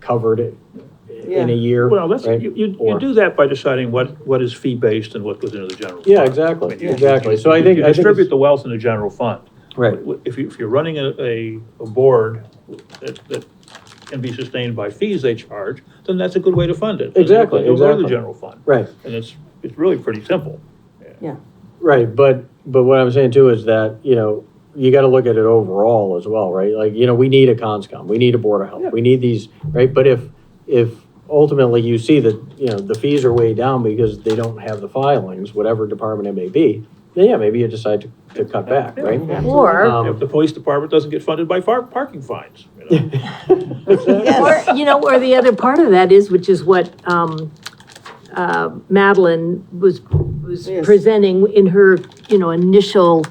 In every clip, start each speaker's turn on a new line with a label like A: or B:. A: covered it in a
B: Yeah.
A: year.
C: Well, that's,
A: right?
C: you, you, you
A: Or-
C: do that by deciding what, what is fee-based and what goes into the general.
A: Yeah,
C: fund.
A: exactly,
C: I mean, you-
A: exactly. So I think,
C: You
A: I think,
C: distribute
A: it's-
C: the wealth in the general fund.
A: right,
C: If you, if you're running a, a, a board that, that can be sustained by fees they charge, then that's a good way to fund it.
A: Exactly,
C: It'll go to the
A: exactly.
C: general fund,
A: right,
C: and it's, it's really pretty simple.
A: right. But, but what I'm saying too is that, you know, you gotta look at it overall as well, right? Like, you know, we need a conscom, we need a board of
C: Yeah.
A: health, we need these, right? But if, if ultimately you see that, you know, the fees are way down because they don't have the filings, whatever department it may be, then yeah, maybe you decide to, to cut back, right?
D: Or,
A: Um,
C: If the police department doesn't get funded by far, parking fines, you know?
D: or, you know, or the other part of that is, which is what, um, uh, Madeline was, was
B: Yes.
D: presenting in her, you know, initial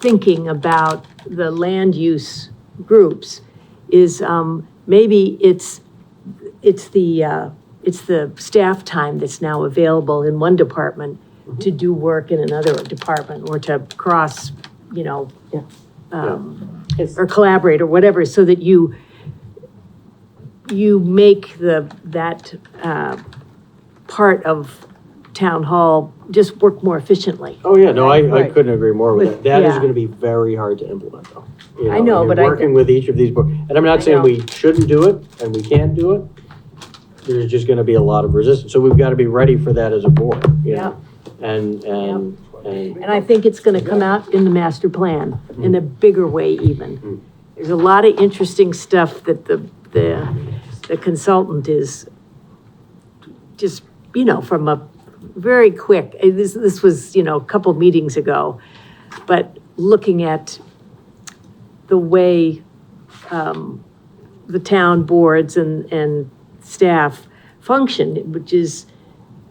D: thinking about the land use groups, is, um, maybe it's, it's the, uh, it's the staff time that's now available in one department to do work in another department, or to cross, you know,
B: Yeah.
D: um,
B: Yes.
D: or collaborate or whatever, so that you, you make the, that, uh, part of town hall just work more efficiently.
A: Oh, yeah, no, I, I
B: Right.
A: couldn't agree more with
D: With-
A: that. That is
D: yeah.
A: gonna be very hard to implement, though. You
D: I know,
A: in
D: but I
A: Working with each of these boards, and I'm
D: I
A: not saying
D: know.
A: we shouldn't do it, and we can't do it. There's just gonna be a lot of resistance, so we've gotta be ready for that as a board, you know? And, and, and,
D: And I think it's gonna come out in the master plan, in a bigger way even. There's a lot of interesting stuff that the, the the consultant is just, you know, from a very quick, eh, this, this was, you know, a couple meetings ago, but looking at the way, um, the town boards and, and staff function, which is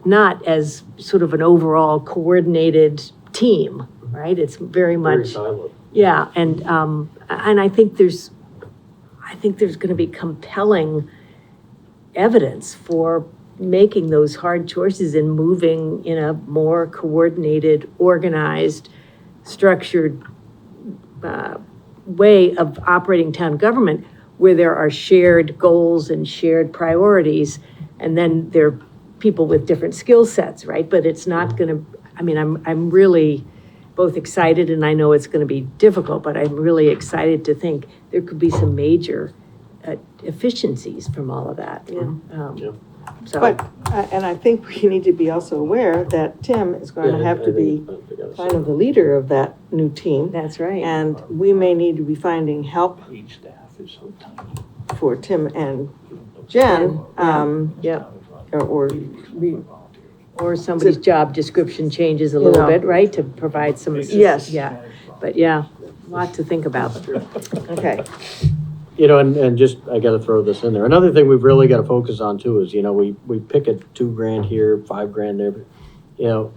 D: not as sort of an overall coordinated team, right? It's very
A: very
D: much.
A: silent.
D: Yeah, and, um, and I think there's, I think there's gonna be compelling evidence for making those hard choices and moving in a more coordinated, organized, structured, uh, way of operating town government where there are shared goals and shared priorities, and then there are people with different skill sets, right? But it's not gonna, I mean, I'm, I'm really both excited and I know it's going to be difficult, but I'm really excited to think there could be some major uh, efficiencies from all of that.
B: Yeah.
D: Um,
A: Yeah.
D: So,
B: But, uh, and I think we need to be also aware that Tim is going to
A: Yeah,
B: have
A: I
B: to be
A: think- I think I was-
B: kind of the leader of that new team.
D: that's right.
B: And we may need to be finding help
C: Each staff is so tiny.
B: for Tim and Jen, um,
D: Yep.
B: or, or we,
D: Or somebody's job description changes a
B: You
D: little
B: know.
D: bit, right, to provide some.
B: Yes.
D: Yeah, but yeah, lot to think about.
B: okay.
A: You know, and, and just, I gotta throw this in there. Another thing we've really gotta focus on too is, you know, we, we pick a two grand here, five grand there, but, you know,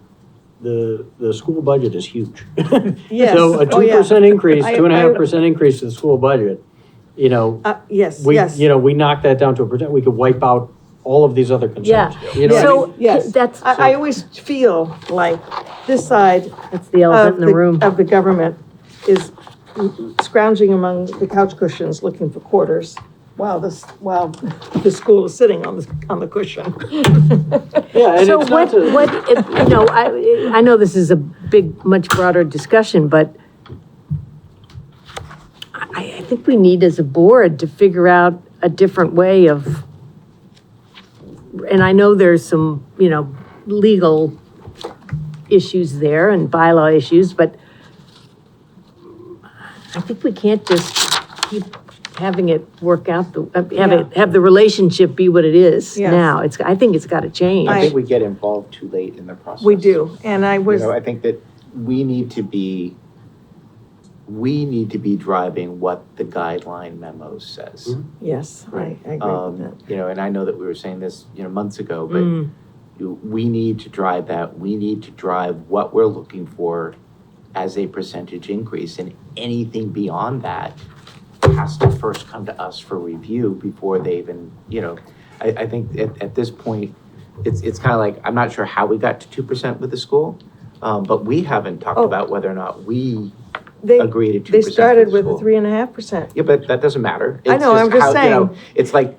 A: the, the school budget is huge.
B: Yes.
A: So a
B: Oh,
A: two
B: yeah.
A: percent increase,
B: I-
A: two and a half
B: I-
A: percent increase to the school budget, you know,
B: Uh, yes,
A: we,
B: yes.
A: you know, we knock that down to a percent, we could wipe out all of these other concerns. You know what I mean?
D: So,
B: Yes.
D: that's,
B: I, I always feel like this side
D: that's the
B: of
D: elephant Oh, in
B: the-
D: the room.
B: Of the government is scrounging among the couch cushions looking for quarters while this, while the school is sitting on the, on the cushion.
A: Yeah, and
D: So
A: it's not
D: what,
A: to,
D: what, if- you know, I, I know this is a big, much broader discussion, but I, I think we need as a board to figure out a different way of, and I know there's some, you know, legal issues there and bylaw issues, but I think we can't just keep having it work out, the uh, have it, have the relationship be what it is
B: Yes.
D: now. It's, I think it's gotta change.
E: I
B: I-
E: think we get involved too late in the process.
B: We do, and I
E: You
B: was,
E: know, I think that we need to be, we need to be driving what the guideline memo says.
A: Mhm.
B: yes, I, I agree with that.
E: Um, you know, and I know that we were saying this, you know, months ago, but
D: Mm.
E: you- we need to drive that. We need to drive what we're looking for as a percentage increase, and anything beyond that has to first come to us for review before they even, you know, I, I think at, at this point, it's, it's kind of like, I'm not sure how we got to two percent with the school, um, but we haven't talked
B: Oh.
E: about whether or not we
B: They,
E: agree to two
B: they
E: percent
B: started with a
E: school.
B: three and a half percent.
E: Yeah, but that doesn't matter.
B: I
E: It's
B: know, I'm just
E: how, you know, It's like,